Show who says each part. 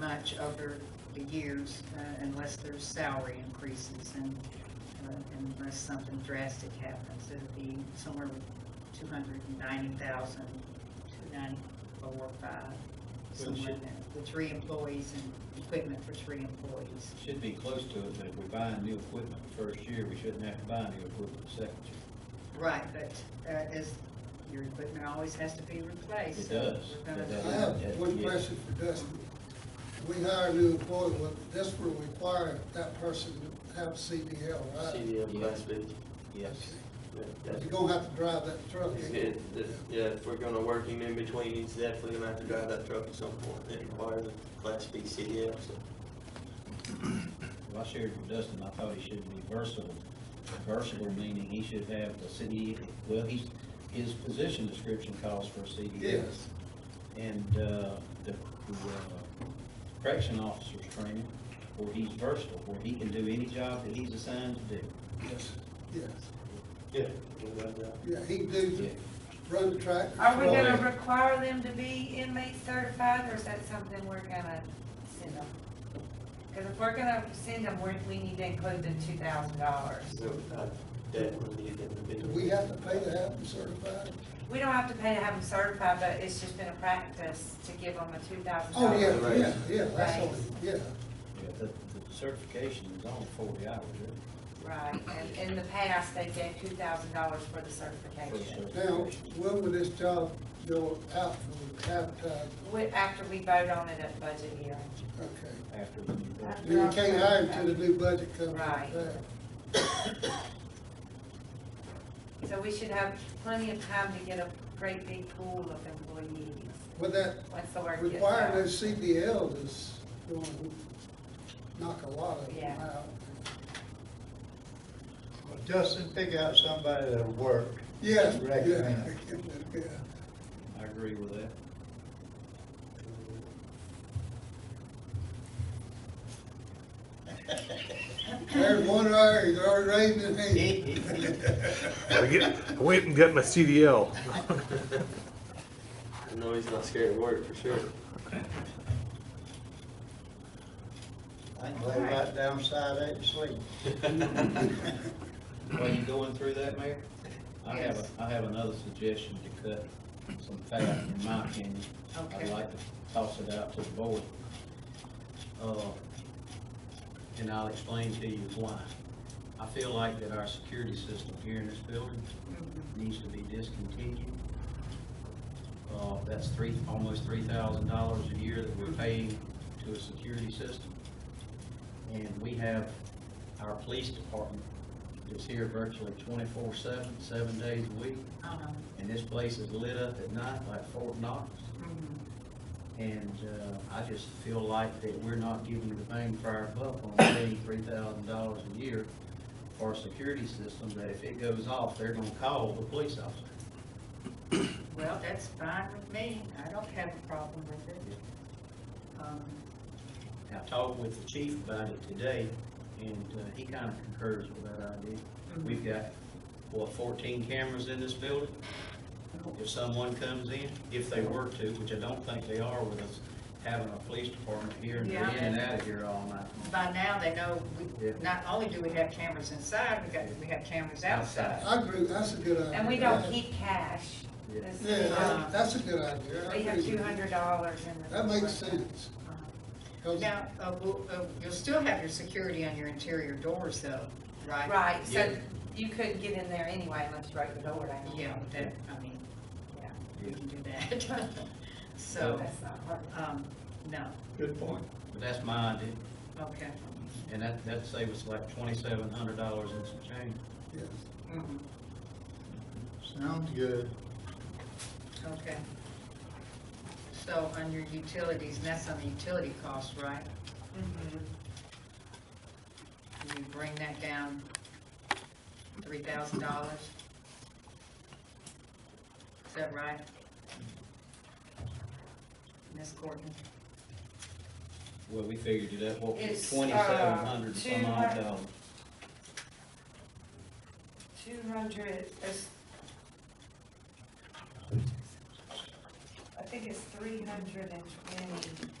Speaker 1: much over the years uh, unless there's salary increases and uh, unless something drastic happens. It'd be somewhere two hundred and ninety thousand, two ninety-four, five, somewhere in there. The three employees and equipment for three employees.
Speaker 2: Should be close to it, but if we're buying new equipment the first year, we shouldn't have to buy new equipment the second year.
Speaker 1: Right, but uh, as, your equipment always has to be replaced.
Speaker 2: It
Speaker 1: so
Speaker 2: does.
Speaker 1: we're gonna-
Speaker 2: It does.
Speaker 3: I have one question for Dustin. We hire a new employee, will this will require that person to have CDL, right?
Speaker 4: CDL class B.
Speaker 2: Yes.
Speaker 4: Yeah, that's-
Speaker 3: You're gonna have to drive that truck.
Speaker 4: it's good. That's- Yeah, if we're gonna work him in between, he's definitely gonna have to drive that truck at some point. It requires a class B CDL, so.
Speaker 2: Well, I shared with Dustin, I thought he should be versatile. Versatile meaning he should have the city, well, he's, his position description calls for a CDL.
Speaker 3: Yes.
Speaker 2: And, uh, the, the uh, correction officer's training, where he's versatile, where he can do any job that he's assigned to do.
Speaker 3: Yes. Yes,
Speaker 4: Yeah. we'll drive that.
Speaker 3: yeah, he can do, run the track.
Speaker 5: Are we
Speaker 2: Well,
Speaker 5: gonna
Speaker 2: yeah.
Speaker 5: require them to be inmate certified, or is that something we're gonna send them? Cause if we're gonna send them, we, we need to include the two thousand dollars.
Speaker 4: So I definitely need them to be.
Speaker 3: Do we have to pay to have them certified?
Speaker 5: We don't have to pay to have them certified, but it's just been a practice to give them a two thousand
Speaker 3: Oh,
Speaker 5: dollars.
Speaker 3: yeah,
Speaker 4: Right.
Speaker 3: yeah, yeah, that's
Speaker 5: Right.
Speaker 3: all, yeah.
Speaker 2: Yeah, The, the certification is only forty hours, isn't
Speaker 5: Right, and in the past, they gave two thousand dollars for the
Speaker 2: it? For the
Speaker 5: certification.
Speaker 3: Now,
Speaker 2: certification.
Speaker 3: when will this job go out for advertising?
Speaker 5: We, after we vote on it at budget hearing.
Speaker 3: Okay.
Speaker 2: After the new budget.
Speaker 3: You can't hire him till the new budget comes.
Speaker 5: Right. So we should have plenty of time to get a great big pool of employees
Speaker 3: With that
Speaker 5: once the word gets out.
Speaker 3: Requiring those CDLs is going to knock a lot of them
Speaker 5: Yeah.
Speaker 3: out.
Speaker 6: Well, Justin, pick out somebody that'll work.
Speaker 3: Yes.
Speaker 6: Recommend.
Speaker 3: yeah.
Speaker 2: I agree with that.
Speaker 3: There's one there, he's already raising his hand.
Speaker 7: I get, I went and got my CDL.
Speaker 4: I know he's not scared of work, for sure.
Speaker 6: I can lay right down side eight and sleep.
Speaker 2: While you going through that, Mayor? I have,
Speaker 1: Yes.
Speaker 2: a I have another suggestion to cut some fat, in my opinion. I'd
Speaker 1: Okay.
Speaker 2: like to toss it out to the board. Uh, And I'll explain to you why. I feel like that our security system here in this building
Speaker 5: Mm-hmm.
Speaker 2: needs to be discontinued. Uh, That's three, almost three thousand dollars a year that we're paying to a security system. And we have our police department is here virtually twenty-four seven, seven days a week.
Speaker 1: Uh-huh.
Speaker 2: And this place is lit up at night like Fort Knox.
Speaker 1: Mhm.
Speaker 5: Mm-hmm.
Speaker 2: And uh, I just feel like that we're not giving the bang for our buck on paying three thousand dollars a year for a security system that if it goes off, they're gonna call the police officer.
Speaker 1: Well, that's fine with me. I don't have a problem with it. Um,
Speaker 2: And I talked with the chief about it today, and uh, he kind of concurs with that idea. We've got, what, fourteen cameras in this building? If someone comes in, if they were to, which I don't think they are with us having a police department here and they're in and out of here all night.
Speaker 5: mm-hmm.
Speaker 1: By now, they know, we,
Speaker 2: Yeah.
Speaker 1: not only do we have cameras inside, we got, we have cameras outside.
Speaker 3: I agree, that's a good idea.
Speaker 5: And we don't keep cash.
Speaker 2: Yeah.
Speaker 5: This
Speaker 3: uh, Yeah,
Speaker 5: is, uh,
Speaker 3: that- that's a good idea. I
Speaker 5: We have
Speaker 3: agree.
Speaker 5: two hundred dollars in the.
Speaker 3: That makes sense.
Speaker 5: Uh-huh.
Speaker 3: 'Cause-
Speaker 1: Now, uh, we'll- uh, you'll still have your security on your interior doors though, right?
Speaker 5: Right, so
Speaker 2: Yeah.
Speaker 5: you couldn't get in there anyway unless you broke the door down.
Speaker 1: Yeah, that, I mean, yeah, we can do that.
Speaker 2: Oh.
Speaker 5: So
Speaker 1: So,
Speaker 5: that's not hard.
Speaker 1: um, no,
Speaker 6: Good point.
Speaker 2: But that's my idea,
Speaker 1: okay.
Speaker 2: and that, that'd save us like twenty-seven hundred dollars and some change.
Speaker 3: Yes.
Speaker 1: Mhm.
Speaker 6: Sounds good.
Speaker 1: Okay. So on your utilities, and that's on the utility cost, right? Can you bring that down three thousand dollars? Is that right? Ms. Courtney?
Speaker 2: Well, we figured it out, what,
Speaker 5: It's, uh,
Speaker 2: twenty-seven hundred some odd
Speaker 5: 200
Speaker 2: dollars.
Speaker 5: Two hundred, it's. I think it's three hundred and twenty